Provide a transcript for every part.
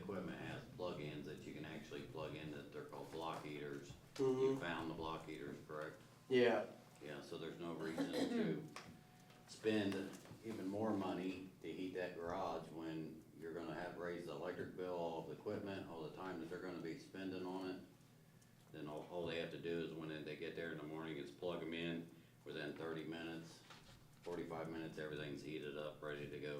equipment has plug-ins that you can actually plug in that they're called block heaters. You Mm-hmm. found the block heaters, correct? Yeah, Yeah, so there's no reason to spend even more money to heat that garage when you're gonna have raised the electric bill, all the equipment, all the time that they're gonna be spending on it. Then all, all they have to do is when they get there in the morning is plug them in, within thirty minutes, forty-five minutes, everything's heated up, ready to go.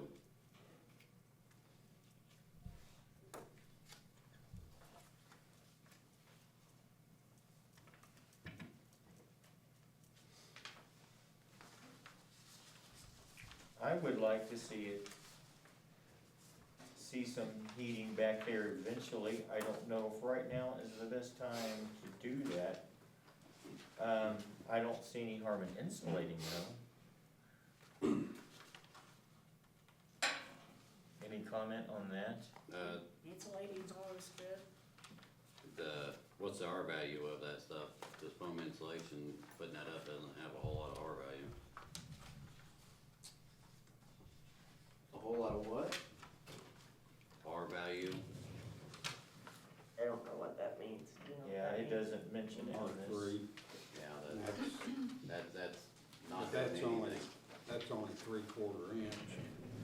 I would like to see it, see some heating back there eventually. I don't know if right now is the best time to do that. Um, I don't see any harm in insulating though. Any comment on that? Uh, Insulating's always good. the, what's the R value of that stuff? This foam insulation, putting that up doesn't have a whole lot of R value. a whole lot of what? R value, I don't know what that means, you know? Yeah, what that it means? doesn't mention it R on this. three, yeah, that, that's, that, that's not but doing that's only, anything. that's only three quarter inch.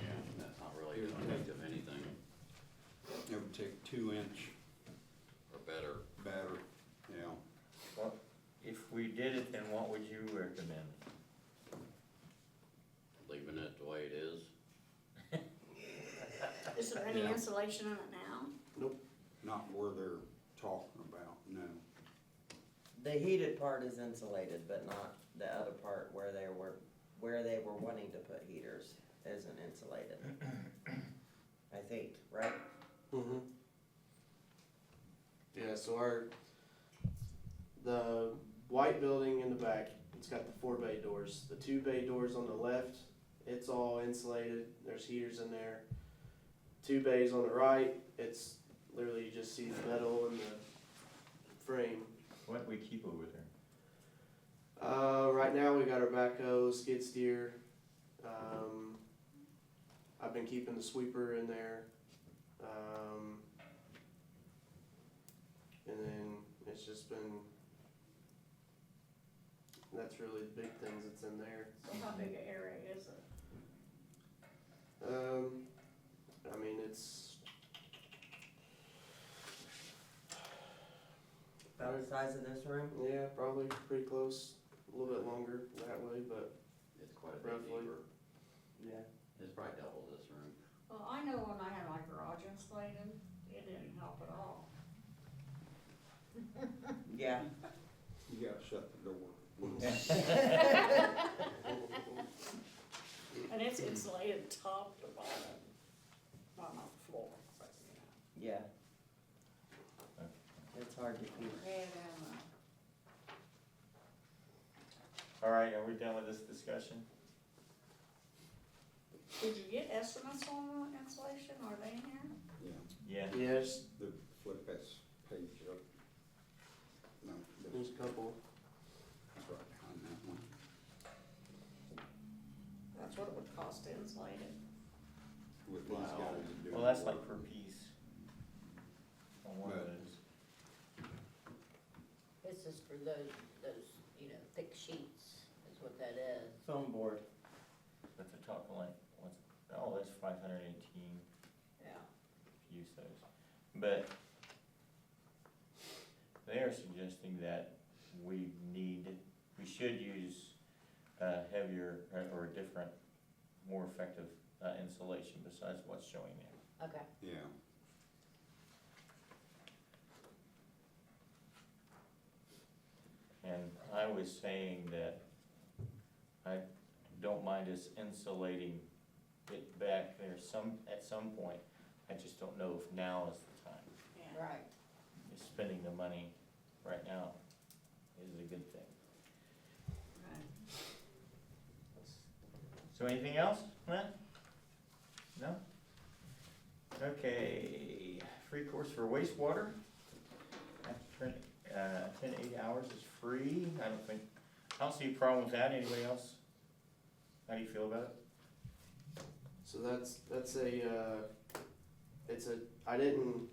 Yeah, that's not really doing much of anything, It would take two inch or better. batter, you know. Well, If we did it, then what would you recommend? Leaving it the way it is, Is there any Yeah. insulation in it now? Not where they're talking about, no. The heated part is insulated, but not the other part where they were, where they were wanting to put heaters isn't insulated. I think, right? Mm-hmm. Yeah, so our, the white building in the back, it's got the four bay doors. The two bay doors on the left, it's all insulated, there's heaters in there. Two bays on the right, it's literally you just see the metal and the frame. What we keep over there? Uh, right now we got our backhoe, skid steer. Um, I've been keeping the sweeper in there. Um, and then it's just been, that's really the big things that's in there. So how big an area is it? Um, I mean, it's, About the size of this room? yeah, probably pretty close, a little bit longer that way, but it's quite a bit Roughly. deeper, yeah. it's probably double this room. Well, I know when I had my garage insulated, it didn't help at all. Yeah. You gotta shut the door. And it's insulated top to bottom, not on the floor, but, you Yeah. It's hard to keep. know. And, um, All right, are we done with this discussion? did you get estimates on the insulation, are they in here? Yeah, Yeah. Yes, the flip that page up. No, there's a that's couple. that's right behind that one. That's what it would cost to insulate it. With these guys Wow. doing. Well, that's the like work. per piece. On one of But- those. This is for those, those, you know, thick sheets, is what that is. Foam board. But they're talking like, what's, oh, that's five hundred eighteen, Yeah. if you use those, but they are suggesting that we need, we should use, uh, heavier or- or different, more effective, uh, insulation besides what's showing there. Okay. Yeah. And I was saying that I don't mind us insulating it back there some, at some point. I just don't know if now is the time. Yeah. Right. Is Spending the money right now is a good thing. Right. So anything else, Matt? No? Okay, free course for wastewater. After, uh, ten, to eight hours is free, I don't think, I don't see a problem with that, anybody else? How do you feel about it? So that's that's a uh, it's a I didn't um,